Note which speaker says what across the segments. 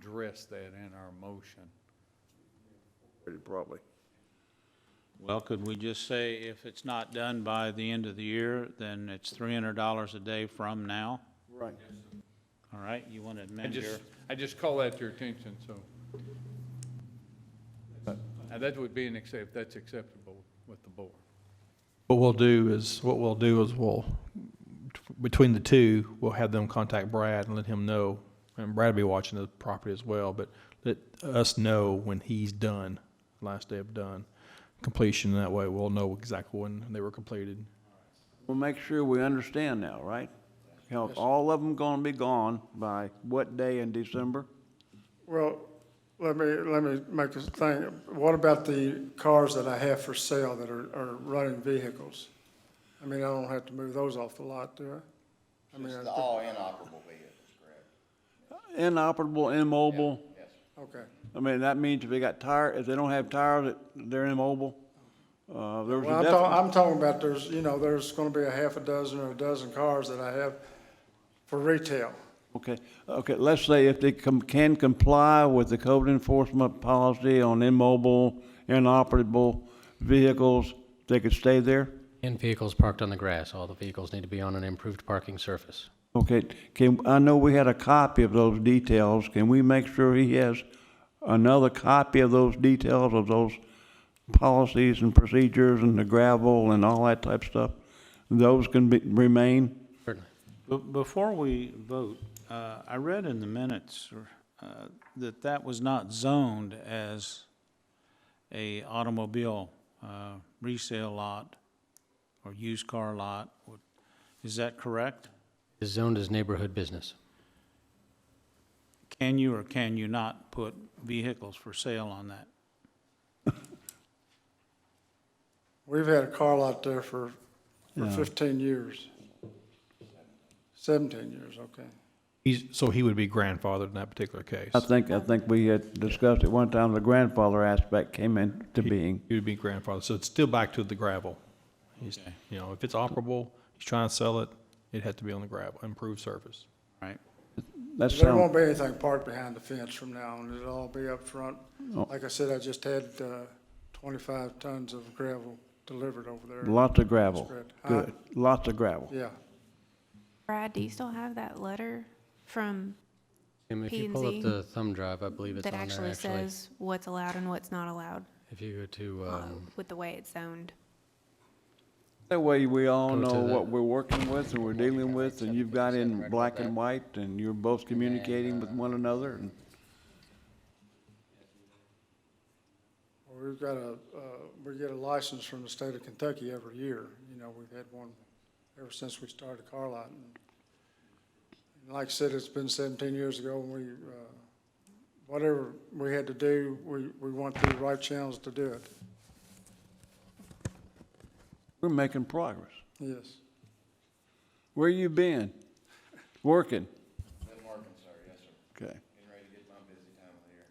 Speaker 1: address that in our motion.
Speaker 2: pretty probably.
Speaker 3: Well, could we just say if it's not done by the end of the year, then it's three hundred dollars a day from now?
Speaker 2: Right.
Speaker 3: All right, you want to
Speaker 1: I
Speaker 3: amend your,
Speaker 1: just, I just call that to your attention, so. Now, that would be an accept, that's acceptable with the board.
Speaker 4: What we'll do is, what we'll do is we'll, between the two, we'll have them contact Brad and let him know. And Brad will be watching the property as well, but let us know when he's done, last day of done completion. That way we'll know exactly when they were completed.
Speaker 2: We'll make sure we understand now, right? You know, all of them gonna be gone by what day in December?
Speaker 5: Well, let me, let me make a thing. What about the cars that I have for sale that are, are running vehicles? I mean, I don't have to move those off the lot, do I? I mean,
Speaker 6: It's
Speaker 5: I
Speaker 6: the all inoperable vehicles, correct?
Speaker 2: Inoperable, immobile?
Speaker 6: Yes.
Speaker 5: thi- okay.
Speaker 2: I mean, that means if they got tire, if they don't have tires, it- they're immobile? Uh, there was
Speaker 5: Well,
Speaker 2: a
Speaker 5: I'm talking,
Speaker 2: definite,
Speaker 5: I'm talking about there's, you know, there's gonna be a half a dozen or a dozen cars that I have for retail.
Speaker 2: okay, okay, let's say if they com- can comply with the code enforcement policy on immobile, inoperable vehicles, they could stay there?
Speaker 7: And vehicles parked on the grass, all the vehicles need to be on an improved parking surface.
Speaker 2: Okay, can, I know we had a copy of those details, can we make sure he has another copy of those details of those policies and procedures and the gravel and all that type stuff? Those can be, remain?
Speaker 7: Certainly.
Speaker 3: Be- before we vote, uh, I read in the minutes, uh, that that was not zoned as a automobile, uh, resale lot or used car lot. Is that correct?
Speaker 7: Is zoned as neighborhood business.
Speaker 3: Can you or can you not put vehicles for sale on that?
Speaker 5: We've had a car lot there for, for
Speaker 4: Yeah.
Speaker 5: fifteen years. Seventeen years, okay.
Speaker 4: He's, so he would be grandfathered in that particular case.
Speaker 2: I think, I think we had discussed at one time, the grandfather aspect came into being.
Speaker 4: He would be grandfathered. So it's still back to the gravel. He's,
Speaker 3: Okay.
Speaker 4: you know, if it's operable, he's trying to sell it, it'd have to be on the gravel, improved surface.
Speaker 3: Right?
Speaker 2: That
Speaker 5: There won't
Speaker 2: sounds,
Speaker 5: be anything parked behind the fence from now on, it'll all be up front.
Speaker 2: Oh.
Speaker 5: Like I said, I just had, uh, twenty-five tons of gravel delivered over there.
Speaker 2: lots of gravel.
Speaker 5: Correct.
Speaker 2: Good, lots of gravel.
Speaker 5: Yeah,
Speaker 8: Brad, do you still have that letter from,
Speaker 7: Tim, if you pull
Speaker 8: P&Z
Speaker 7: up the thumb drive, I believe it's on
Speaker 8: that
Speaker 7: there, actually.
Speaker 8: actually says what's allowed and what's not allowed
Speaker 7: If you go to,
Speaker 8: uh,
Speaker 7: um,
Speaker 8: with the way it's zoned?
Speaker 2: That way we all
Speaker 7: Go to
Speaker 2: know
Speaker 7: the-
Speaker 2: what we're working with and we're dealing with, and you've got in black and white, and you're both communicating with one another, and
Speaker 5: Well, we've got a, uh, we get a license from the state of Kentucky every year, you know, we've had one ever since we started car lot. And Like I said, it's been seventeen years ago, and we, uh, whatever we had to do, we, we went through the right channels to do it,
Speaker 2: we're making progress.
Speaker 5: yes.
Speaker 2: Where you been? Working?
Speaker 6: Been working, sir, yes, sir.
Speaker 2: Okay.
Speaker 6: Getting ready to get my busy time of the year.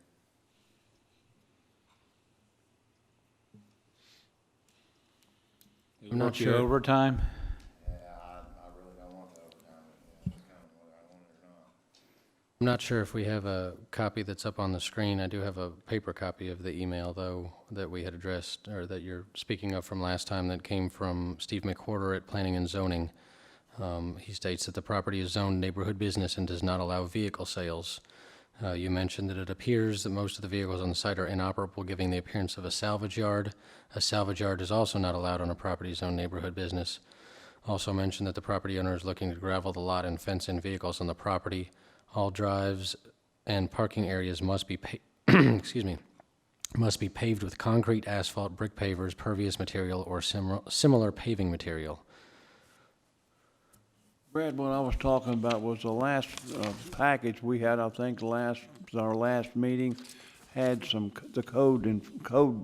Speaker 7: I'm not
Speaker 3: Work your
Speaker 7: sure.
Speaker 3: Overtime?
Speaker 6: Yeah, I, I really don't want the overtime, yeah, it's kind of whether I want it or not.
Speaker 7: I'm not sure if we have a copy that's up on the screen. I do have a paper copy of the email, though, that we had addressed, or that you're speaking of from last time, that came from Steve McWhorter at Planning and Zoning. Um, He states that the property is zoned neighborhood business and does not allow vehicle sales. Uh, You mentioned that it appears that most of the vehicles on the site are inoperable, giving the appearance of a salvage yard. A salvage yard is also not allowed on a property zoned neighborhood business. Also mentioned that the property owner is looking to gravel the lot and fence in vehicles on the property. All drives and parking areas must be, pa- excuse me, must be paved with concrete, asphalt, brick pavers, pervious material, or simr- similar paving material.
Speaker 2: Brad, what I was talking about was the last uh, package we had, I think, last, our last meeting, had some, c- the code and code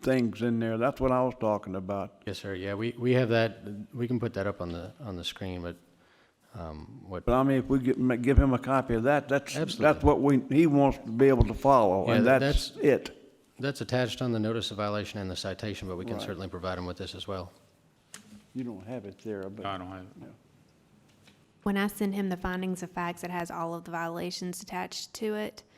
Speaker 2: things in there. That's what I was talking about.
Speaker 7: Yes, sir. Yeah, we, we have that. We can put that up on the, on the screen, but um, what,
Speaker 2: But I mean, if we give, ma- give him a copy of that, that's, that's
Speaker 7: Absolutely.
Speaker 2: what we, he wants to be able to follow,
Speaker 7: Yeah,
Speaker 2: and
Speaker 7: tha-
Speaker 2: that's
Speaker 7: that's-
Speaker 2: it.
Speaker 7: that's attached on the notice of violation and the citation, but we can certainly provide them with this as well.
Speaker 2: You don't have it there,
Speaker 3: I
Speaker 2: but
Speaker 3: don't have it.
Speaker 8: When I send him the findings of facts, it has all of the violations attached to it.